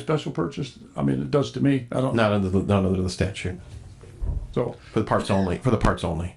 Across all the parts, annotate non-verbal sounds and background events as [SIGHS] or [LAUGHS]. special purchase? I mean, it does to me. I don't know. Not under the, not under the statute. So, For the parts only. For the parts only.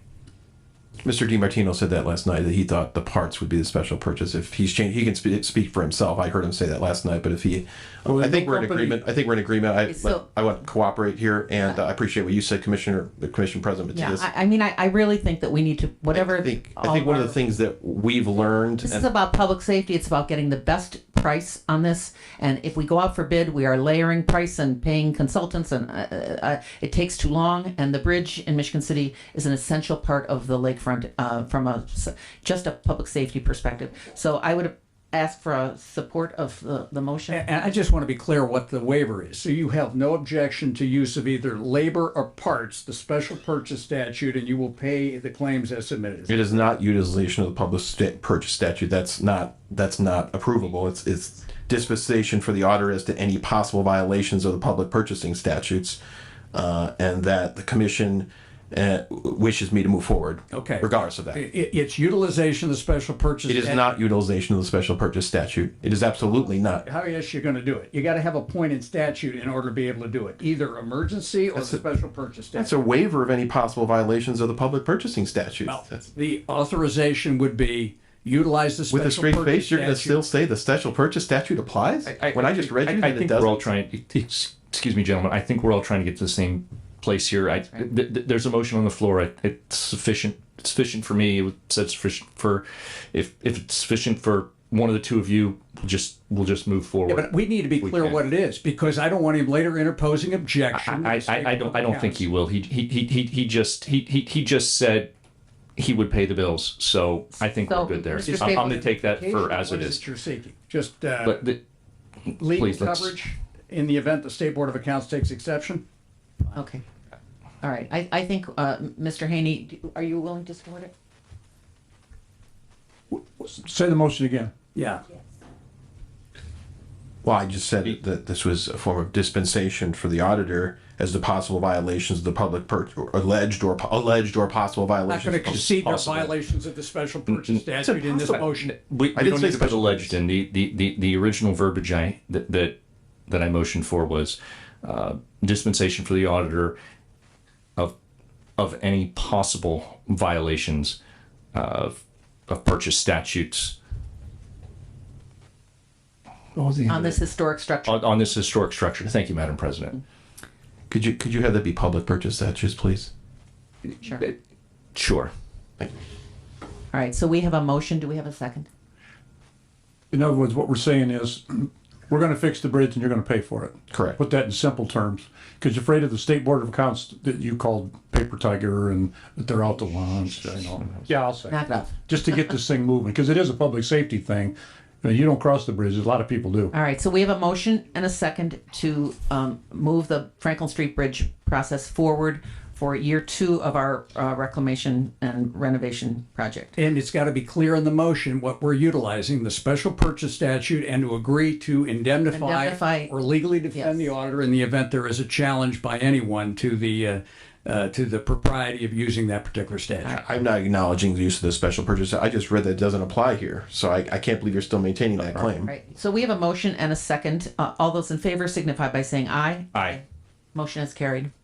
Mr. DiMartino said that last night that he thought the parts would be the special purchase. If he's changed, he can spe- speak for himself. I heard him say that last night. But if he, Well, I think Oh, the we're in company- agreement. I think we're in agreement. I So- I want to cooperate here, and uh, I appreciate what you said, Commissioner, the Commission President. Yeah, Matias. I, I mean, I, I really think that we need to, whatever. I think I all think one of our- the things that we've learned. This and- is about public safety. It's about getting the best price on this. And if we go out for bid, we are layering price and paying consultants, and uh, uh, uh, it takes too long. And the bridge in Michigan City is an essential part of the lakefront uh, from a s- just a public safety perspective. So I would ask for a support of the, the motion. And I just want to be clear what the waiver is. So you have no objection to use of either labor or parts, the special purchase statute, and you will pay the claims as submitted. It is not utilization of the public sta- purchase statute. That's not, that's not approvable. It's, it's dispensation for the auditor as to any possible violations of the public purchasing statutes. Uh, and that the commission, uh, wishes me to move forward. Okay. Regardless of that. It It, it's utilization of the special purchase. is not utilization of the special purchase statute. It is absolutely not. How else you going to do it? You got to have a point in statute in order to be able to do it, either emergency or the special purchase statute. That's a waiver of any possible violations of the public purchasing statute. That's- The authorization would be utilize the With a special straight purchase face, you're gonna statute. still say the special purchase statute applies? When I just read you I, that it think we're all doesn't. trying. [LAUGHS] Excuse me, gentlemen. I think we're all trying to get to the same place here. I, th- th- there's a motion on the floor. It, it's sufficient. It's sufficient for me. It was said sufficient for, if if it's sufficient for one of the two of you, we'll just we'll just move forward. But we need to be clear can. what it is, because I don't want him later interposing objection. I, I, I don't I don't think he will. He he he he, he just he, he he just said he would pay the bills. So I think So, we're good there. Mr. I'm, I'm Stapleton, gonna take that for as What it is. that You're seeking, just, uh. But the, legal Please, let's- coverage in the event the State Board of Accounts takes exception? Okay. All right. I, I think, uh, Mr. Haney, do- are you willing to support it? say the motion again. Yeah. Well, I just said that this was a form of dispensation for the auditor as to possible violations of the public per, or alleged or po- alleged or possible Not violations. going to of- concede their possible. violations of the special purchase statute in this motion. We, we didn't don't say need to put special alleged in. The, the, the, the original verbiage I, that, that, that I motioned for was, uh, dispensation for the auditor of, of any possible violations of, of purchase statutes On this historic structure? on, on this historic structure. Thank you, Madam President. Could you could you have that be public purchase statutes, please? Sure. Sure. All right. So we have a motion. Do we have a second? In other words, what we're saying is, [CLEARS THROAT] we're gonna fix the bridge and you're gonna pay for it. Correct. Put that in simple terms, because you're afraid of the state board of accounts that you called paper tiger and that they're out to lunch, you know. Yeah, I'll say. Knock it off. [LAUGHS] Just to get this thing moving, because it is a public safety thing. You know, You don't cross the bridge, a lot of people do. All right, so we have a motion and a second to um, move the Franklin Street Bridge process forward for year two of our uh, reclamation and renovation project. And it's got to be clear in the motion what we're utilizing, the special purchase statute, and to agree to indemnify Indemnify. or legally defend the Yes. auditor in the event there is a challenge by anyone to the, uh, uh, to the propriety of using that particular statute. I'm not acknowledging the use of the special purchase. I just read that it doesn't apply here, so I, I can't believe you're still maintaining that claim. All right, so we have a motion and a second. Uh, All those in favor signify by saying aye. Aye. Motion is carried. [SIGHS]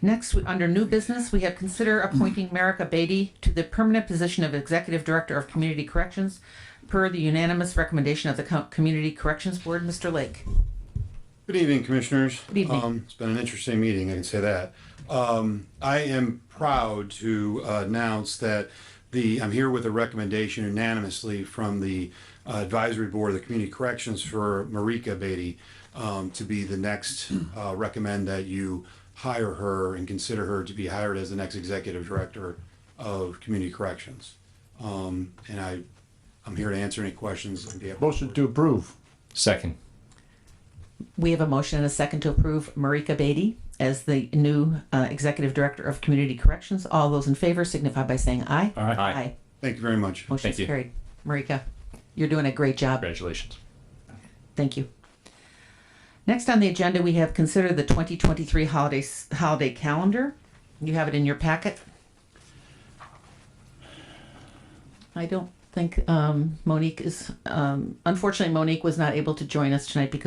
Next, we- under new business, we have consider appointing Marika Beatty to the permanent position of Executive Director of Community Corrections per the unanimous recommendation of the Co- Community Corrections Board. Mr. Lake. Good evening, Commissioners. Good evening. It's been an interesting meeting, I can say that. Um, I am proud to uh, announce that the, I'm here with a recommendation unanimously from the uh, Advisory Board of the Community Corrections for Marika Beatty um, to be the next, uh, recommend that you hire her and consider her to be hired as the next Executive Director of Community Corrections. Um, And I, I'm here to answer any questions. and be able- Motion to approve. Second. We have a motion and a second to approve Marika Beatty as the new uh, Executive Director of Community Corrections. All those in favor signify by saying aye. Aye. Aye. Thank you very much. Motion Thank is you. carried. Marika, you're doing a great job. Congratulations. Thank you. Next on the agenda, we have considered the 2023 holiday, holiday calendar. You have it in your packet. I don't think um, Monique is, um, unfortunately, Monique was not able to join us tonight because